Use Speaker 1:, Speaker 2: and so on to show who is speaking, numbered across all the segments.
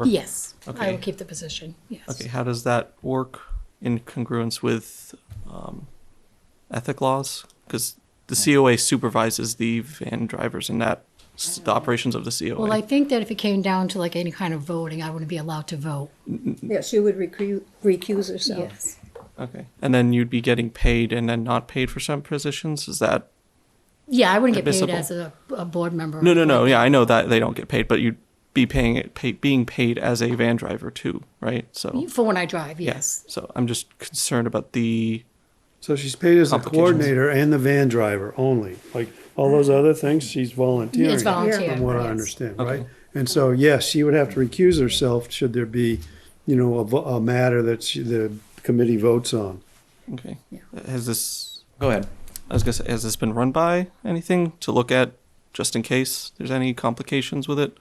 Speaker 1: Or-
Speaker 2: Yes, I
Speaker 1: Okay.
Speaker 2: will keep the position,
Speaker 1: Okay,
Speaker 2: yes.
Speaker 1: how does that work in congruence with um, ethic laws? Because the COA supervises the van drivers and that s- the operations of the COA.
Speaker 2: Well, I think that if it came down to like any kind of voting, I wouldn't be allowed to vote.
Speaker 3: Yeah, she would recuse, recuse herself.
Speaker 1: okay, and then you'd be getting paid and then not paid for some positions. Is that
Speaker 2: Yeah, I wouldn't get paid
Speaker 1: Admissible.
Speaker 2: as a, a board member.
Speaker 1: no, no, no? Yeah, I know that they don't get paid, but you'd be paying it, pay, being paid as a van driver too, right? So
Speaker 2: For when I drive,
Speaker 1: yeah.
Speaker 2: yes.
Speaker 1: So I'm just concerned about the
Speaker 4: So she's paid as a
Speaker 1: Complications.
Speaker 4: coordinator and the van driver only. Like all those other things, she's volunteering.
Speaker 2: It's volunteer,
Speaker 4: From what I
Speaker 2: yes.
Speaker 4: understand,
Speaker 1: Okay.
Speaker 4: right? And so, yes, she would have to recuse herself should there be, you know, a, vo- a matter that she, the committee votes on.
Speaker 1: okay. Has this
Speaker 5: Go ahead.
Speaker 1: I was gonna say, has this been run by anything to look at just in case there's any complications with it?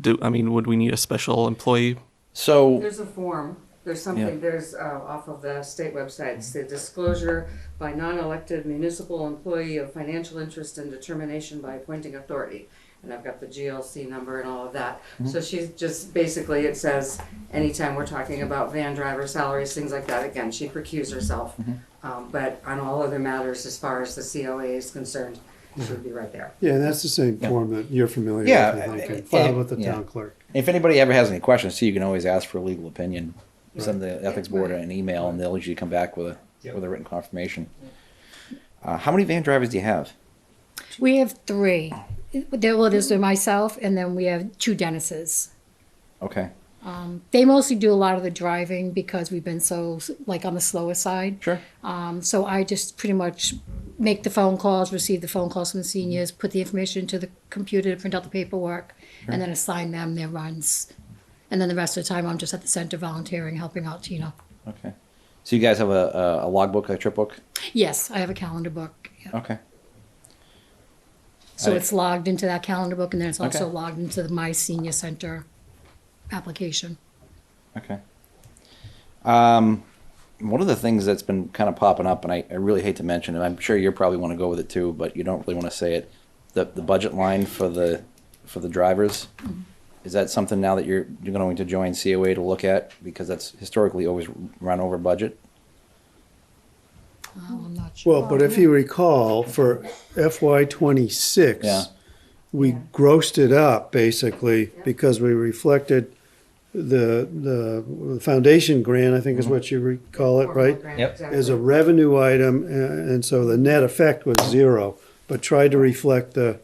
Speaker 1: Do I mean would we need a special employee?
Speaker 5: So,
Speaker 6: There's a form, there's something, there's, uh, off of the state website, it's the disclosure by non-elected municipal employee of financial interest and determination by appointing authority. And I've got the GLC number and all of that. So she's just, basically, it says, anytime we're talking about van driver salaries, things like that, again, she'd recuse herself. Um, but on all other matters, as far as the COA is concerned, she
Speaker 4: Mm-hmm.
Speaker 6: would be right there.
Speaker 4: Yeah, and that's the same form that you're familiar with,
Speaker 5: Yeah,
Speaker 4: I think,
Speaker 5: uh,
Speaker 4: and filed
Speaker 5: uh,
Speaker 4: with the
Speaker 5: yeah.
Speaker 4: town clerk.
Speaker 5: if anybody ever has any questions, too, you can always ask for a legal opinion. Send the ethics board an email, and they'll usually come back with a with a written confirmation. Uh, how many van drivers do you have?
Speaker 2: We have three. There, well, there's myself, and then we have two Dennis's.
Speaker 5: Okay,
Speaker 2: They mostly do a lot of the driving because we've been so, like, on the slower side.
Speaker 5: sure.
Speaker 2: Um, so I just pretty much make the phone calls, receive the phone calls from the seniors, put the information into the computer to print out the paperwork, and then assign them their runs. And then the rest of the time, I'm just at the center volunteering, helping out Tina.
Speaker 5: Okay. So you guys have a a, a logbook, a trip book.
Speaker 2: Yes, I have a calendar book. yeah.
Speaker 5: Okay.
Speaker 2: So
Speaker 5: I-
Speaker 2: it's logged into that calendar book, and then it's also
Speaker 5: Okay.
Speaker 2: logged into the My Senior Center application.
Speaker 5: Okay. Um, one of the things that's been kind of popping up, and I, I really hate to mention it, I'm sure you probably want to go with it too, but you don't really want to say it. The the budget line for the for the drivers is that something now that you're you're going to join COA to look at because that's historically always run over budget.
Speaker 2: Oh, I'm not sure.
Speaker 4: Well, but if you recall, for FY twenty-six,
Speaker 5: Yeah.
Speaker 4: we grossed it up basically because we reflected the, the foundation grant, I think is what you recall it, right?
Speaker 5: Yep.
Speaker 4: As a revenue item, uh, and so the net effect was zero, but tried to reflect the,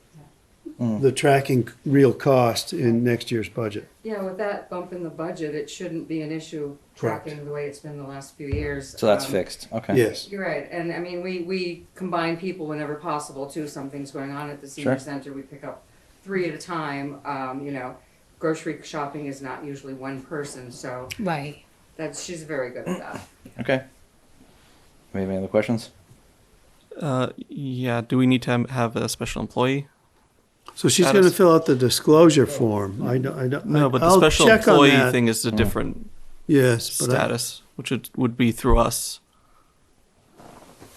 Speaker 4: the tracking real cost in next year's budget.
Speaker 6: Yeah, with that bump in the budget, it shouldn't be an issue
Speaker 4: Correct.
Speaker 6: tracking the way it's been the last few years.
Speaker 5: So that's
Speaker 6: Um,
Speaker 5: fixed. Okay.
Speaker 4: Yes,
Speaker 6: You're right, and I mean, we, we combine people whenever possible too, something's going on at the senior
Speaker 5: Sure.
Speaker 6: center, we pick up three at a time, um, you know, grocery shopping is not usually one person, so
Speaker 2: Right.
Speaker 6: that's, she's very good at that.
Speaker 5: Okay. We have any other questions?
Speaker 1: Uh, yeah, do we need to ha- have a special employee?
Speaker 4: so she's
Speaker 1: That
Speaker 4: gonna
Speaker 1: is-
Speaker 4: fill out the disclosure form, I, don't- I, don't-
Speaker 1: No, but the
Speaker 4: I'll
Speaker 1: special
Speaker 4: check on
Speaker 1: employee
Speaker 4: that.
Speaker 1: thing is a different
Speaker 4: Yes, but I,
Speaker 1: status, which it would be through us.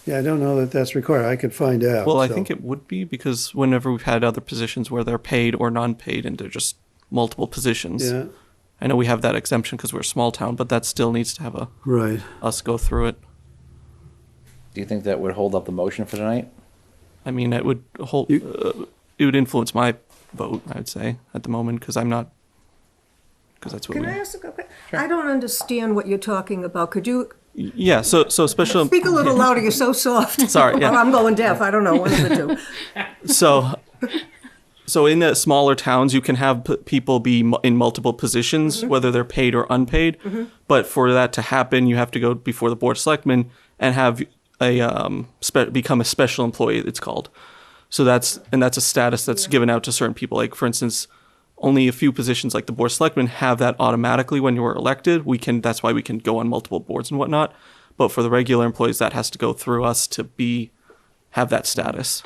Speaker 4: yeah, I don't know that that's required, I could find out.
Speaker 1: Well, I
Speaker 4: so.
Speaker 1: think it would be because whenever we've had other positions where they're paid or non-paid and they're just multiple positions.
Speaker 4: Yeah,
Speaker 1: I know we have that exemption because we're a small town, but that still needs to have a
Speaker 4: right.
Speaker 1: us go through it.
Speaker 5: Do you think that would hold up the motion for tonight?
Speaker 1: I mean, it would hold. uh, it would influence my vote. I would say at the moment because I'm not. Because that's what
Speaker 3: Can
Speaker 1: we.
Speaker 3: I ask a question? I don't understand what you're talking about. Could you
Speaker 1: yeah. So so special.
Speaker 3: speak a little louder? You're so soft.
Speaker 1: Sorry, yeah.
Speaker 3: Or I'm going deaf. I don't know, one of the two.
Speaker 1: so so in the smaller towns you can have p- people be mu- in multiple positions whether they're paid or unpaid but for that to happen you have to go before the board of selectmen and have a um, spe- become a special employee it's called so that's and that's a status that's given out to certain people like for instance only a few positions like the board of selectmen have that automatically when you are elected we can that's why we can go on multiple boards and whatnot but for the regular employees that has to go through us to be have that status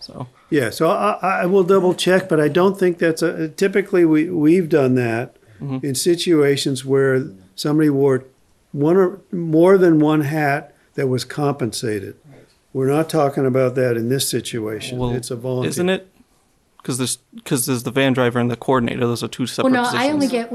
Speaker 1: so
Speaker 4: Yeah, so I, I I will double check, but I don't think that's a, typically we, we've done that
Speaker 1: Mm-hmm.
Speaker 4: in situations where somebody wore one or more than one hat that was compensated. We're not talking about that in this situation.
Speaker 1: Well,
Speaker 4: It's a volunteer.
Speaker 1: Isn't it? because there's because there's the van driver and the coordinator. Those are two separate.
Speaker 2: Well, no, I
Speaker 1: positions.
Speaker 2: only get,